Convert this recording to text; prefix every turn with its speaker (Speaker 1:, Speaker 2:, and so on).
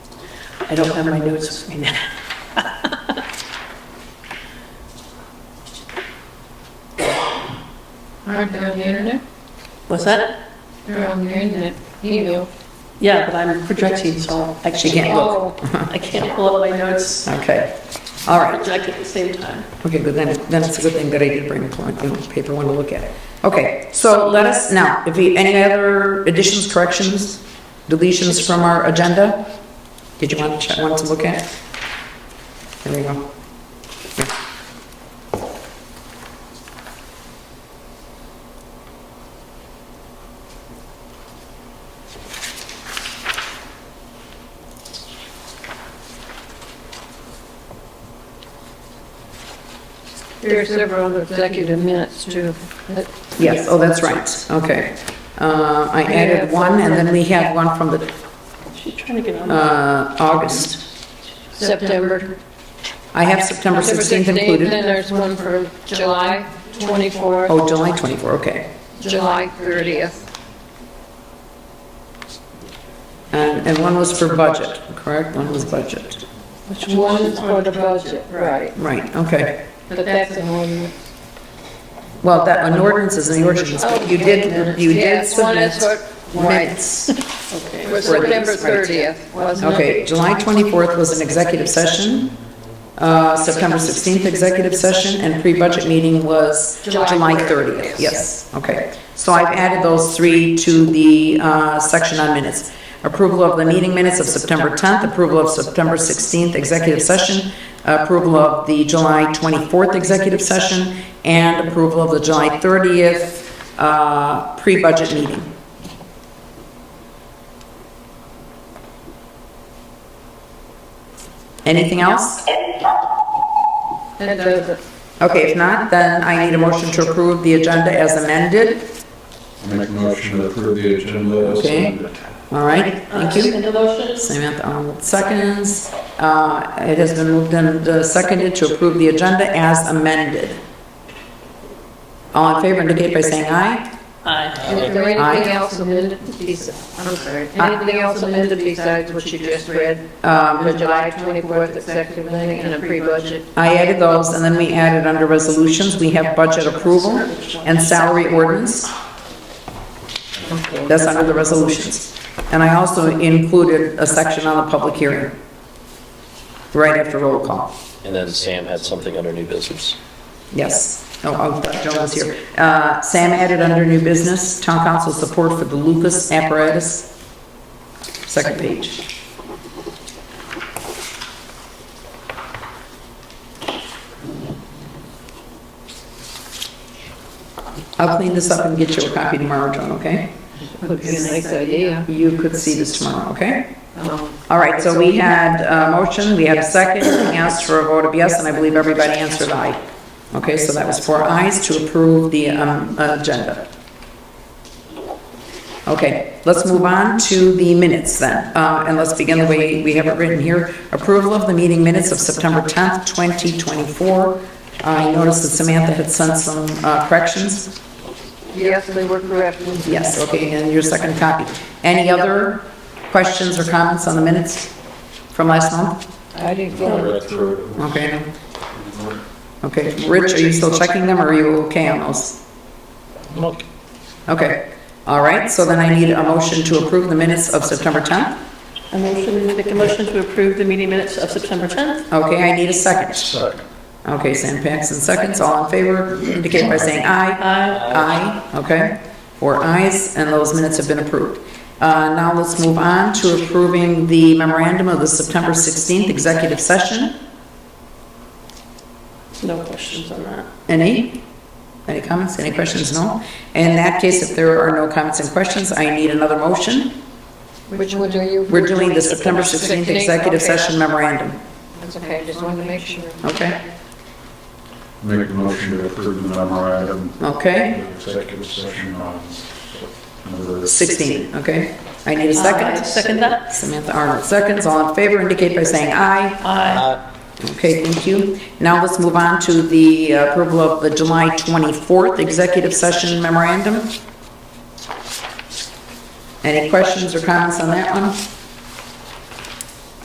Speaker 1: I don't have my notes with me now.
Speaker 2: Aren't they on the internet?
Speaker 1: What's that?
Speaker 2: They're on the internet, email.
Speaker 1: Yeah, but I'm projecting, so I
Speaker 3: She can't
Speaker 1: can't,
Speaker 3: look.
Speaker 2: Oh,
Speaker 1: I can't pull up my notes.
Speaker 3: Okay, all
Speaker 1: I
Speaker 3: right.
Speaker 1: project at the same time.
Speaker 3: Okay, good, then, then it's a good thing that I did bring a plant, you know, paper one to look at it. Okay, so let us, now, if you, any other additions, corrections, deletions from our agenda? Did you want to, check- want to look at? There we go.
Speaker 2: there are several other executive minutes too. That-
Speaker 3: Yes, oh, that's right, okay. Uh, I added one, and then we have one from the,
Speaker 1: She's trying to get on.
Speaker 3: uh, August.
Speaker 2: September.
Speaker 3: I have September 16th
Speaker 2: Then
Speaker 3: included.
Speaker 2: there's one for July 24th,
Speaker 3: Oh, July 24, okay.
Speaker 2: July 30th.
Speaker 3: And, and one was for budget, correct? One was budget.
Speaker 1: Which
Speaker 2: One
Speaker 1: one?
Speaker 2: is for the budget, right.
Speaker 3: Right, okay.
Speaker 2: But that's an ordinance.
Speaker 3: Well, that, an ordinance is an ordinance, but Oh, you did, you did
Speaker 2: Yes, one
Speaker 3: submit
Speaker 2: is for- right.
Speaker 3: minutes.
Speaker 2: For September 30th, wasn't it?
Speaker 3: Okay, July 24th was an executive session. Uh, September 16th, executive session, and pre-budget meeting was
Speaker 2: July
Speaker 3: July 30th. Yes, okay. So I've added those three to the uh, section on minutes. Approval of the meeting minutes of September 10th, approval of September 16th, executive session, approval of the July 24th executive session, and approval of the July 30th uh, pre-budget meeting. Anything else?
Speaker 2: That does it.
Speaker 3: Okay, if not, then I need a motion to approve the agenda as amended.
Speaker 4: Make a motion to approve the agenda as
Speaker 3: Okay.
Speaker 4: amended.
Speaker 3: All right, thank you.
Speaker 1: Second the motion?
Speaker 3: Samantha Arnold seconds. Uh, It has been moved and uh, seconded to approve the agenda as amended. All in favor indicate by saying aye.
Speaker 1: Aye.
Speaker 2: Is there
Speaker 3: Aye.
Speaker 2: anything else amended besides, I'm sorry, anything else amended besides what you just read? The
Speaker 3: Um,
Speaker 2: July 24th executive meeting and a pre-budget?
Speaker 3: I added those, and then we added under resolutions, we have budget approval and salary ordinance. That's under the resolutions. And I also included a section on the public hearing, right after roll call.
Speaker 5: And then Sam had something under new business.
Speaker 3: Yes. Oh, oh, Joan was here. Uh, Sam added under new business, town council support for the Lucas apparatus. Second page. I'll clean this up and get you a copy tomorrow, Joan, okay?
Speaker 2: Would be a nice idea.
Speaker 3: You could see this tomorrow, okay?
Speaker 2: Um,
Speaker 3: All right, so we had a motion, we had a second, we asked for a vote of yes, and I believe everybody answered aye. Okay, so that was four ayes to approve the um, agenda. Okay, let's move on to the minutes then, Uh, and let's begin the way we have it written here. Approval of the meeting minutes of September 10th, 2024. I noticed that Samantha had sent some uh, corrections.
Speaker 2: Yes, they were correct.
Speaker 3: Yes, okay, and your second copy. Any other questions or comments on the minutes from last month?
Speaker 2: I didn't
Speaker 4: I
Speaker 2: get it.
Speaker 4: read through it.
Speaker 3: Okay, okay. Rich, are you still checking them, or are you okay on those?
Speaker 5: Look.
Speaker 3: Okay, all right, so then I need a motion to approve the minutes of September 10th.
Speaker 1: A motion, make a motion to approve the meeting minutes of September 10th?
Speaker 3: Okay, I need a second.
Speaker 4: Second.
Speaker 3: Okay, Sam Paxton, seconds, all in favor, indicate by saying aye.
Speaker 1: Aye.
Speaker 3: Aye, okay, four ayes, and those minutes have been approved. Uh, Now let's move on to approving the memorandum of the September 16th executive session.
Speaker 1: No questions on that.
Speaker 3: Any? Any comments, any questions, no? In that case, if there are no comments and questions, I need another motion.
Speaker 2: Which one are you?
Speaker 3: We're doing the September 16th executive session memorandum,
Speaker 2: That's okay, just wanted to make sure.
Speaker 3: okay?
Speaker 4: Make a motion to approve the memorandum.
Speaker 3: Okay,
Speaker 4: of Executive session on number
Speaker 3: 16, okay? I need a
Speaker 1: Aye.
Speaker 3: second.
Speaker 1: Second that?
Speaker 3: Samantha Arnold, seconds, all in favor indicate by saying aye.
Speaker 1: Aye.
Speaker 3: Okay, thank you. Now let's move on to the approval of the July 24th executive session memorandum. Any questions or comments on that one?